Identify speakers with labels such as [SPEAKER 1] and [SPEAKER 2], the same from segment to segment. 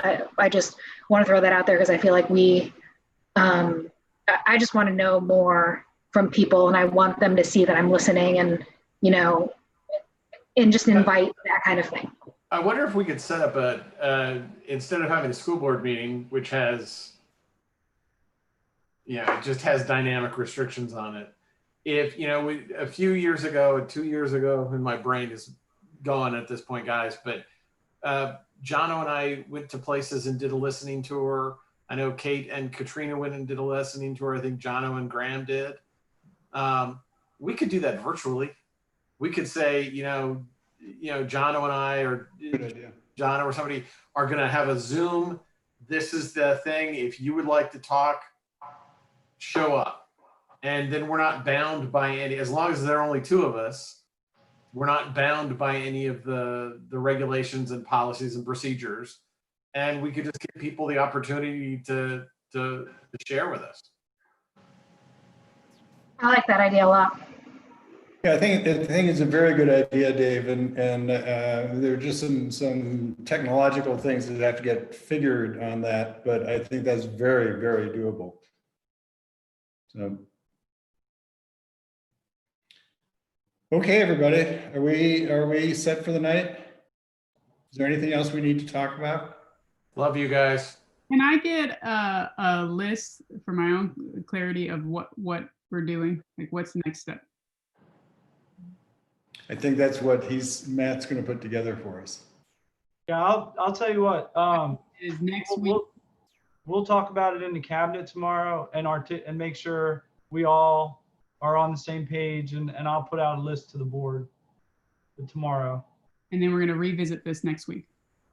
[SPEAKER 1] I, I just want to throw that out there because I feel like we, um, I- I just want to know more from people and I want them to see that I'm listening and, you know, and just invite that kind of thing.
[SPEAKER 2] I wonder if we could set up a, uh, instead of having a school board meeting, which has, yeah, it just has dynamic restrictions on it. If, you know, we, a few years ago, two years ago, and my brain is gone at this point, guys, but uh, Jono and I went to places and did a listening tour. I know Kate and Katrina went and did a listening tour. I think Jono and Graham did. Um, we could do that virtually. We could say, you know, you know, Jono and I or
[SPEAKER 3] Good idea.
[SPEAKER 2] John or somebody are going to have a Zoom. This is the thing. If you would like to talk, show up. And then we're not bound by any, as long as there are only two of us, we're not bound by any of the, the regulations and policies and procedures. And we could just give people the opportunity to, to, to share with us.
[SPEAKER 1] I like that idea a lot.
[SPEAKER 3] Yeah, I think, I think it's a very good idea, Dave, and, and uh, there are just some, some technological things that have to get figured on that, but I think that's very, very doable. So. Okay, everybody, are we, are we set for the night? Is there anything else we need to talk about?
[SPEAKER 2] Love you guys.
[SPEAKER 4] Can I get a, a list for my own clarity of what, what we're doing? Like what's the next step?
[SPEAKER 3] I think that's what he's, Matt's gonna put together for us.
[SPEAKER 5] Yeah, I'll, I'll tell you what, um,
[SPEAKER 4] Is next
[SPEAKER 5] we'll-
[SPEAKER 4] week,
[SPEAKER 5] we'll, we'll talk about it in the cabinet tomorrow and our, and make sure we all are on the same page and, and I'll put out a list to the board for tomorrow.
[SPEAKER 4] and then we're gonna revisit this next week.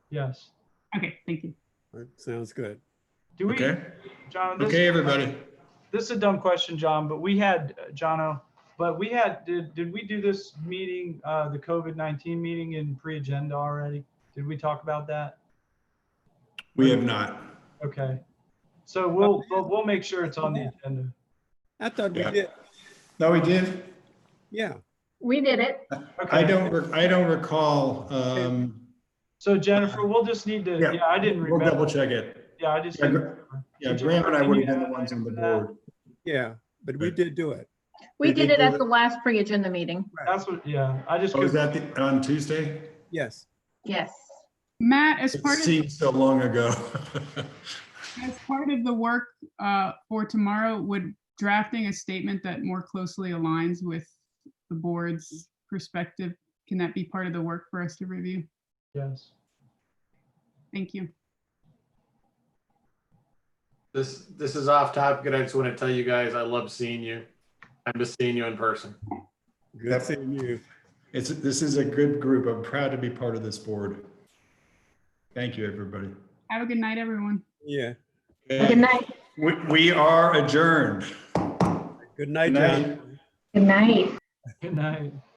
[SPEAKER 5] Yes.
[SPEAKER 4] Okay, thank you.
[SPEAKER 6] That sounds good.
[SPEAKER 5] Do we, John? this-
[SPEAKER 3] Okay, everybody.
[SPEAKER 5] This is a dumb question, John, but we had, uh, Jono, but we had, did, did we do this meeting, uh, the COVID-19 meeting in pre-agenda already? Did we talk about that?
[SPEAKER 3] We have not.
[SPEAKER 5] Okay. So we'll, we'll, we'll make sure it's on the agenda.
[SPEAKER 6] I thought we
[SPEAKER 3] Yeah.
[SPEAKER 6] did,
[SPEAKER 3] No, we did.
[SPEAKER 6] yeah.
[SPEAKER 1] We did it.
[SPEAKER 5] Okay.
[SPEAKER 3] I don't, rec- I don't recall. um,
[SPEAKER 5] So Jennifer, we'll just need to,
[SPEAKER 3] Yeah.
[SPEAKER 5] yeah, I didn't
[SPEAKER 3] We'll double
[SPEAKER 5] remember.
[SPEAKER 3] check it.
[SPEAKER 5] Yeah, I just
[SPEAKER 3] Yeah,
[SPEAKER 5] didn't
[SPEAKER 3] Gra-
[SPEAKER 5] remember.
[SPEAKER 3] Yeah, Graham and I would have been the ones on the board.
[SPEAKER 6] Yeah, but we
[SPEAKER 3] Right.
[SPEAKER 6] did do it.
[SPEAKER 3] We
[SPEAKER 7] We did
[SPEAKER 3] did
[SPEAKER 7] it
[SPEAKER 3] do
[SPEAKER 7] at
[SPEAKER 3] it.
[SPEAKER 7] the last pre-agenda meeting.
[SPEAKER 5] That's what, yeah, I just,
[SPEAKER 3] Oh, is
[SPEAKER 5] couldn't-
[SPEAKER 3] that the- on Tuesday?
[SPEAKER 6] Yes.
[SPEAKER 7] Yes.
[SPEAKER 4] Matt, as
[SPEAKER 3] It
[SPEAKER 4] part of,
[SPEAKER 3] seems so long ago.
[SPEAKER 4] as part of the work, uh, for tomorrow, would drafting a statement that more closely aligns with the board's perspective, can that be part of the work for us to review?
[SPEAKER 5] yes.
[SPEAKER 4] Thank you.
[SPEAKER 2] This, this is off topic. and I just want to tell you guys, I love seeing you. I miss seeing you in person.
[SPEAKER 3] Yep.
[SPEAKER 6] Good seeing you.
[SPEAKER 3] It's, this is a good group. I'm proud to be part of this board. Thank you, everybody.
[SPEAKER 4] Have a good night, everyone.
[SPEAKER 6] Yeah.
[SPEAKER 1] Good night.
[SPEAKER 3] We, we are adjourned.
[SPEAKER 6] Good
[SPEAKER 3] Good
[SPEAKER 6] night,
[SPEAKER 3] night.
[SPEAKER 6] John.
[SPEAKER 1] Good night.
[SPEAKER 5] Good night.